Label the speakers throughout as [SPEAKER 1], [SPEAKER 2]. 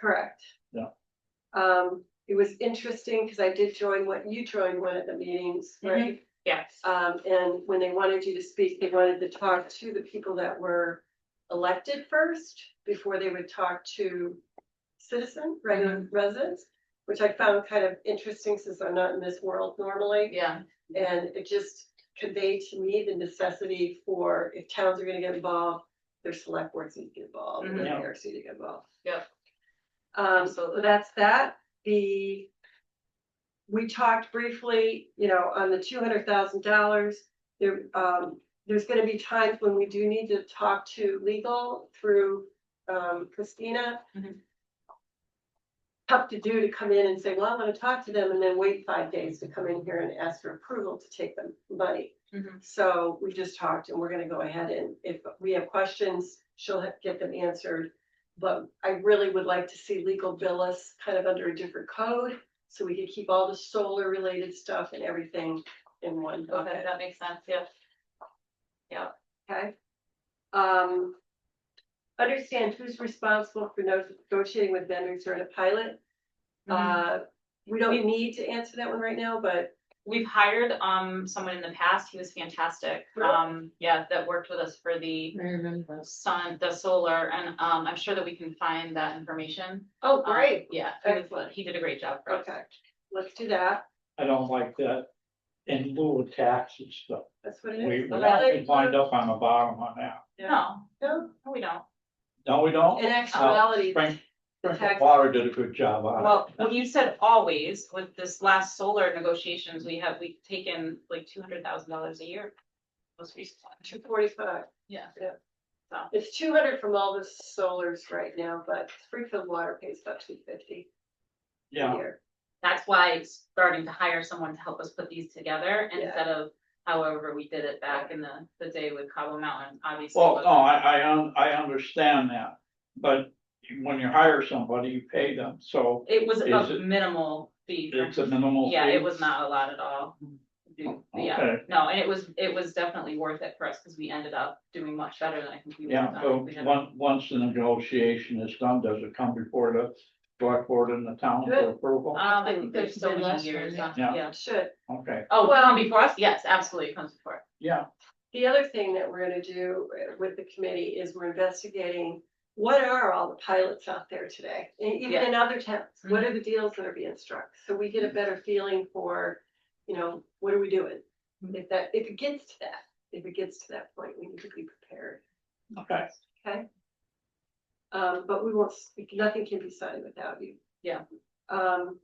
[SPEAKER 1] Correct.
[SPEAKER 2] Yeah.
[SPEAKER 1] Um, it was interesting because I did join what you joined one of the meetings, right?
[SPEAKER 3] Yes.
[SPEAKER 1] Um, and when they wanted you to speak, they wanted to talk to the people that were elected first before they would talk to citizen, regular residents, which I found kind of interesting since I'm not in this world normally.
[SPEAKER 3] Yeah.
[SPEAKER 1] And it just conveyed to me the necessity for, if towns are gonna get involved, their select boards need to get involved, and their
[SPEAKER 2] Mhm.
[SPEAKER 1] mayor's need to get involved.
[SPEAKER 3] Yep.
[SPEAKER 1] Um, so that's that, the. We talked briefly, you know, on the two hundred thousand dollars, there, um, there's gonna be times when we do need to talk to legal through, um, Christina.
[SPEAKER 3] Mhm.
[SPEAKER 1] Tough to do to come in and say, well, I'm gonna talk to them and then wait five days to come in here and ask for approval to take them money.
[SPEAKER 3] Mhm.
[SPEAKER 1] So we just talked and we're gonna go ahead and if we have questions, she'll ha- get them answered. But I really would like to see legal bill us kind of under a different code, so we could keep all the solar related stuff and everything in one
[SPEAKER 3] Okay,
[SPEAKER 1] bucket,
[SPEAKER 3] that makes sense, yeah.
[SPEAKER 1] okay? Um, understand who's responsible for no- negotiating with vendors during a pilot. Uh, we don't need to answer that one right now, but
[SPEAKER 3] We've hired, um, someone in the past, he was fantastic,
[SPEAKER 1] Really?
[SPEAKER 3] um, yeah, that worked with us for the
[SPEAKER 4] I remember.
[SPEAKER 3] sun, the solar, and, um, I'm sure that we can find that information.
[SPEAKER 1] oh,
[SPEAKER 3] Um,
[SPEAKER 1] great,
[SPEAKER 3] Yeah, he was-
[SPEAKER 1] Excellent.
[SPEAKER 3] he did a great job for us.
[SPEAKER 1] okay, let's do that,
[SPEAKER 2] I don't like that in lieu of taxes stuff.
[SPEAKER 1] that's what it
[SPEAKER 2] We,
[SPEAKER 1] is.
[SPEAKER 2] we actually wind up on the bottom on that.
[SPEAKER 3] No,
[SPEAKER 1] No,
[SPEAKER 3] no, we don't.
[SPEAKER 2] No, we don't.
[SPEAKER 1] in actuality,
[SPEAKER 2] Frank,
[SPEAKER 1] the
[SPEAKER 2] Frank
[SPEAKER 1] tax-
[SPEAKER 2] Water did a good job on it.
[SPEAKER 3] Well, when you said always, with this last solar negotiations, we have, we've taken like two hundred thousand dollars a year. Most recent one.
[SPEAKER 1] two forty-five.
[SPEAKER 3] Yeah.
[SPEAKER 1] It's two hundred from all the solars right now, but Springfield Water pays about two fifty a
[SPEAKER 2] Yeah,
[SPEAKER 1] year.
[SPEAKER 3] That's why it's starting to hire someone to help us put these together
[SPEAKER 1] Yeah.
[SPEAKER 3] instead of however we did it back in the, the day with Cabo Mountain, obviously.
[SPEAKER 2] well, no, I, I, un- I understand that, but when you hire somebody, you pay them, so
[SPEAKER 3] It was
[SPEAKER 2] Is
[SPEAKER 3] a
[SPEAKER 2] it-
[SPEAKER 3] minimal fee.
[SPEAKER 2] it's a minimal.
[SPEAKER 3] Yeah,
[SPEAKER 2] fee. Oh,
[SPEAKER 3] it was not a lot at all. Yeah,
[SPEAKER 2] Okay,
[SPEAKER 3] no, and it was, it was definitely worth it for us because we ended up doing much better than I think we would have
[SPEAKER 2] yeah,
[SPEAKER 3] done. if
[SPEAKER 2] so
[SPEAKER 3] we had-
[SPEAKER 2] once, once the negotiation is done, does it come before the select board and the town for
[SPEAKER 1] Good.
[SPEAKER 2] approval?
[SPEAKER 3] Um, I think there's
[SPEAKER 4] It's
[SPEAKER 3] so
[SPEAKER 4] been
[SPEAKER 3] many
[SPEAKER 4] less than
[SPEAKER 3] years,
[SPEAKER 4] that.
[SPEAKER 3] yeah.
[SPEAKER 2] Yeah.
[SPEAKER 1] It should.
[SPEAKER 2] Okay,
[SPEAKER 3] Oh,
[SPEAKER 1] Well-
[SPEAKER 3] well, before us, yes, absolutely, it comes before. us.
[SPEAKER 2] yeah,
[SPEAKER 1] The other thing that we're gonna do uh, with the committee is we're investigating what are all the pilots out there today? And even in other towns, what are the deals that are being struck? So we get a better feeling for, you know, what are we doing? If that, if it gets to that, if it gets to that point, we need to be prepared.
[SPEAKER 2] okay,
[SPEAKER 1] Um, but we won't, speak- nothing can be signed without you.
[SPEAKER 3] Yeah.
[SPEAKER 1] Um,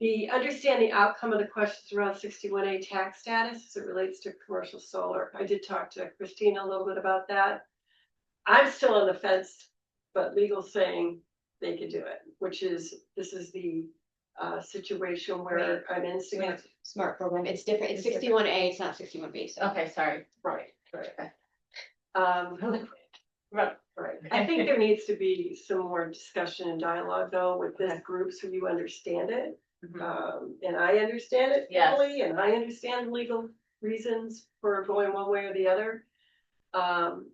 [SPEAKER 1] the understanding outcome of the questions around sixty-one A tax status as it relates to commercial solar. I did talk to Christina a little bit about that. I'm still on the fence, but legal saying they could do it, which is, this is the uh situation where I'm in Singapore.
[SPEAKER 4] Smart program, it's different, it's
[SPEAKER 1] It's different.
[SPEAKER 4] sixty-one A, it's not sixty-one B, so.
[SPEAKER 3] Okay, sorry.
[SPEAKER 1] Right, right. Um, Right, I think there needs to be some more discussion and dialogue though with this group so you understand it.
[SPEAKER 3] Mhm.
[SPEAKER 1] Um, and I understand it
[SPEAKER 3] Yes.
[SPEAKER 1] fully and I understand the legal reasons for going one way or the other. Um,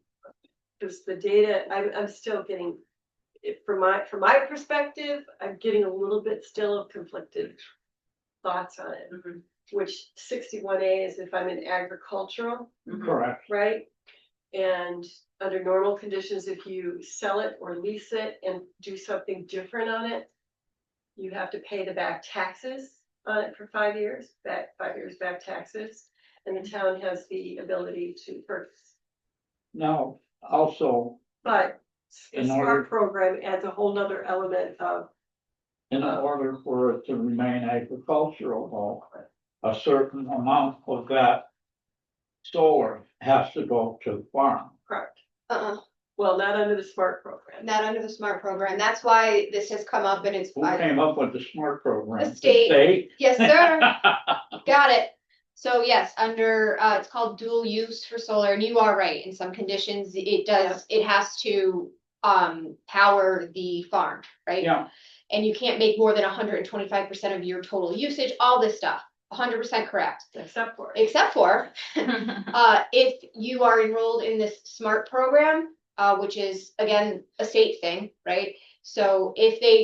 [SPEAKER 1] just the data, I'm, I'm still getting, it from my, from my perspective, I'm getting a little bit still of conflicted thoughts on it,
[SPEAKER 3] Mhm.
[SPEAKER 1] which sixty-one A is if I'm in agricultural
[SPEAKER 3] Mhm.
[SPEAKER 2] correct.
[SPEAKER 1] right? And under normal conditions, if you sell it or lease it and do something different on it, you have to pay the back taxes on it for five years, back, five years back taxes. And
[SPEAKER 2] Mm-hmm.
[SPEAKER 1] the town has the ability to purchase.
[SPEAKER 2] Now, also,
[SPEAKER 1] But the
[SPEAKER 2] In order-
[SPEAKER 1] SMART program adds a whole nother element of,
[SPEAKER 2] in order for it to remain agricultural, though, a certain amount of that solar has to go to the farm.
[SPEAKER 1] correct,
[SPEAKER 4] Uh-uh,
[SPEAKER 1] well, not under the SMART program.
[SPEAKER 4] not under the smart program, that's why this has come up and it's,
[SPEAKER 2] Who came up with the SMART program?
[SPEAKER 4] The state. yes, sir, got it. So yes, under, uh, it's called dual use for solar, and you are right, in some conditions, it does, it has to, um, power the farm, right?
[SPEAKER 2] Yeah,
[SPEAKER 4] And you can't make more than hundred and twenty-five percent of your total usage, all this stuff, hundred percent correct.
[SPEAKER 1] Except for, it.
[SPEAKER 4] Except for,
[SPEAKER 3] Mm-hmm.
[SPEAKER 4] Uh, if you are enrolled in this SMART program, uh, which is again, a state thing, right? So if they